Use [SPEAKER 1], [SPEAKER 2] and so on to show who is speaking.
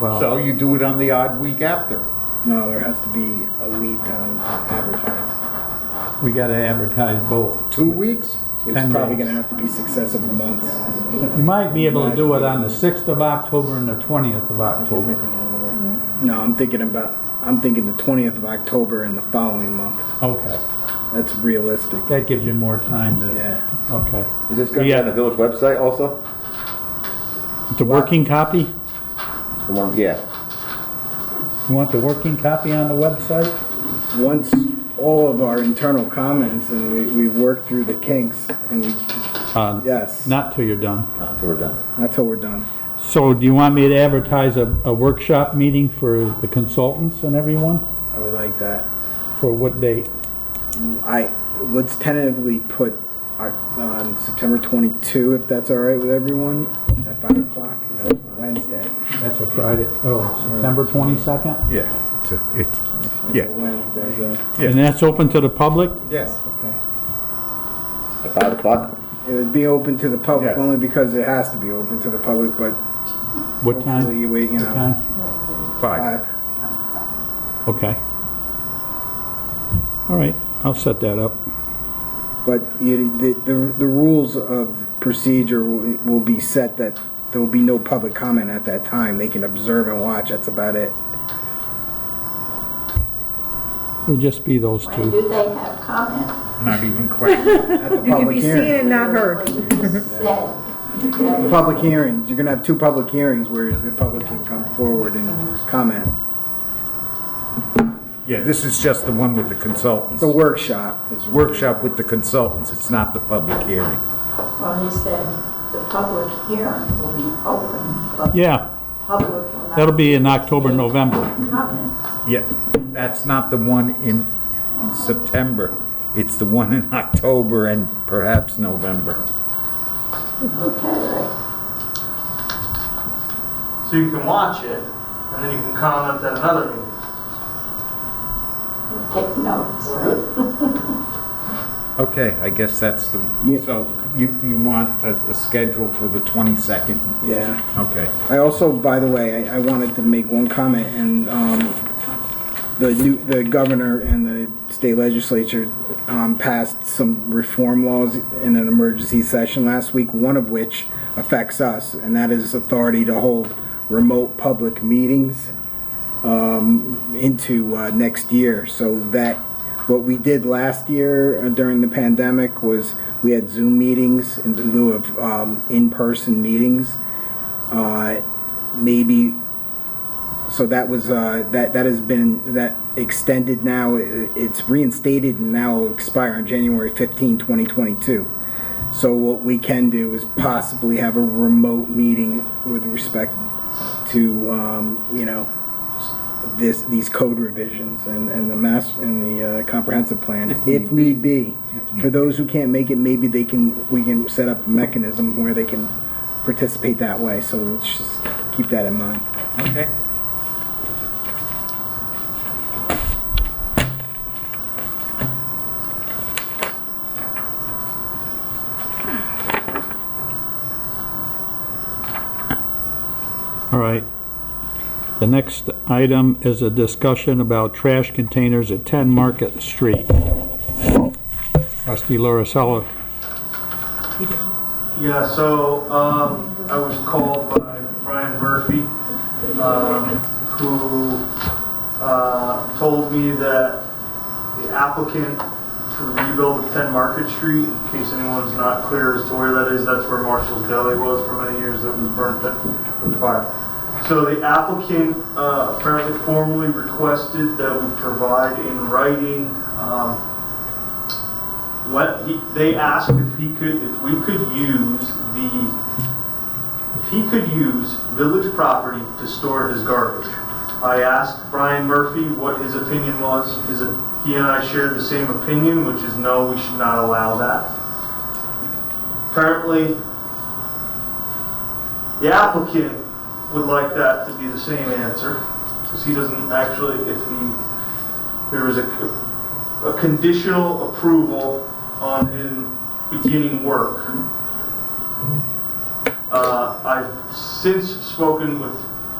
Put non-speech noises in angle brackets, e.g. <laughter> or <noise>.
[SPEAKER 1] Well,
[SPEAKER 2] So you do it on the odd week after.
[SPEAKER 3] No, there has to be a lead time to advertise.
[SPEAKER 1] we gotta advertise both.
[SPEAKER 2] Two weeks?
[SPEAKER 3] It's
[SPEAKER 1] Ten
[SPEAKER 3] probably
[SPEAKER 1] days.
[SPEAKER 3] gonna have to be successive months.
[SPEAKER 1] You might be able to do it on the sixth of October and the twentieth of October.
[SPEAKER 3] No, I'm thinking about, I'm thinking the twentieth of October and the following month.
[SPEAKER 1] Okay,
[SPEAKER 3] That's realistic.
[SPEAKER 1] that gives you more time to,
[SPEAKER 3] Yeah.
[SPEAKER 1] okay.
[SPEAKER 4] Is this gonna be on the village website also?
[SPEAKER 1] The working copy?
[SPEAKER 4] The one, yeah.
[SPEAKER 1] You want the working copy on the website?
[SPEAKER 3] Once all of our internal comments and we, we work through the kinks and we,
[SPEAKER 1] Uh,
[SPEAKER 3] yes,
[SPEAKER 1] Not till you're done.
[SPEAKER 4] Not till Uh, we're done.
[SPEAKER 3] not till we're done.
[SPEAKER 1] So do you want me to advertise a, a workshop meeting for the consultants and everyone?
[SPEAKER 3] I would like that.
[SPEAKER 1] For what date?
[SPEAKER 3] I, let's tentatively put our- on September twenty-two, if that's all right with everyone, at five o'clock, Wednesday.
[SPEAKER 1] That's a Friday, oh, September twenty-second?
[SPEAKER 2] Yeah, it's, a-
[SPEAKER 3] It's
[SPEAKER 2] it's,
[SPEAKER 3] a
[SPEAKER 2] Yeah.
[SPEAKER 3] Wednesday.
[SPEAKER 2] Yeah.
[SPEAKER 1] And that's open to the public?
[SPEAKER 2] yes.
[SPEAKER 3] Okay.
[SPEAKER 4] At five o'clock?
[SPEAKER 3] It would be open to the public
[SPEAKER 2] Yes.
[SPEAKER 3] only because it has to be open to the public, but
[SPEAKER 1] What
[SPEAKER 3] hopefully
[SPEAKER 1] time?
[SPEAKER 3] you wait, you
[SPEAKER 1] What
[SPEAKER 3] know.
[SPEAKER 1] time?
[SPEAKER 2] Five.
[SPEAKER 3] five.
[SPEAKER 1] Okay. All right, I'll set that up.
[SPEAKER 3] But you- the, the, the rules of procedure will will be set that there will be no public comment at that time. They can observe and watch, that's about it.
[SPEAKER 1] It'll just be those
[SPEAKER 5] Why
[SPEAKER 1] two.
[SPEAKER 5] do they have comment?
[SPEAKER 2] Not
[SPEAKER 3] <laughs>
[SPEAKER 2] even question.
[SPEAKER 3] At
[SPEAKER 6] <laughs>
[SPEAKER 3] the
[SPEAKER 6] You can
[SPEAKER 3] public
[SPEAKER 6] be seen
[SPEAKER 3] hearing.
[SPEAKER 6] and not heard.
[SPEAKER 3] The Public hearings, you're gonna have two public hearings where the public can come forward and comment.
[SPEAKER 2] Yeah, this is just the one with the consultants.
[SPEAKER 3] The workshop is.
[SPEAKER 2] Workshop with the consultants, it's not the public hearing.
[SPEAKER 5] Well, he said the public hearing will be open, but the
[SPEAKER 1] Yeah,
[SPEAKER 5] public will not.
[SPEAKER 1] that'll be in October, November.
[SPEAKER 5] Comments.
[SPEAKER 2] Yeah, that's not the one in September. It's the one in <laughs> October and perhaps November.
[SPEAKER 5] Okay, right.
[SPEAKER 7] So you can watch it, and then you can comment at another meeting.
[SPEAKER 5] Take notes, right?
[SPEAKER 2] Okay, I guess that's the,
[SPEAKER 3] Yeah.
[SPEAKER 2] so you, you want a, a schedule for the 22nd?
[SPEAKER 3] Yeah.
[SPEAKER 2] Okay.
[SPEAKER 3] I also, by the way, I, I wanted to make one comment, and, um, the new, the governor and the state legislature, um, passed some reform laws in an emergency session last week, one of which affects us, and that is authority to hold remote public meetings, um, into, uh, next year, so that, what we did last year uh, during the pandemic was, we had Zoom meetings in lieu of, um, in-person meetings uh, maybe, so that was, uh, that, that has been, that extended now, i- it's reinstated and now will expire on January 15, 2022. So what we can do is possibly have a remote meeting with respect to, um, you know, this, these code revisions and, and the mass, and the uh, comprehensive plan, if need be. For those who can't make it, maybe they can, we can set up a mechanism where they can participate that way, so let's just keep that in mind.
[SPEAKER 2] Okay.
[SPEAKER 1] All right. The next item is a discussion about trash containers at 10 Market Street. Rusty Larissella.
[SPEAKER 7] Yeah, so, um, I was called by Brian Murphy, um, who, uh, told me that the applicant to rebuild ten Market Street, in case anyone's not clear as to where that is, that's where Marshall's Deli was for many years, that was burnt down with fire. So the applicant, uh, apparently formally requested that we provide in writing, um, what, he, they asked if he could, if we could use the, if he could use village property to store his garbage. I asked Brian Murphy what his opinion was, his, he and I shared the same opinion, which is no, we should not allow that. Apparently, the applicant would like that to be the same answer, because he doesn't actually, if he, there was a, a conditional approval on him beginning work. Uh, I've since spoken with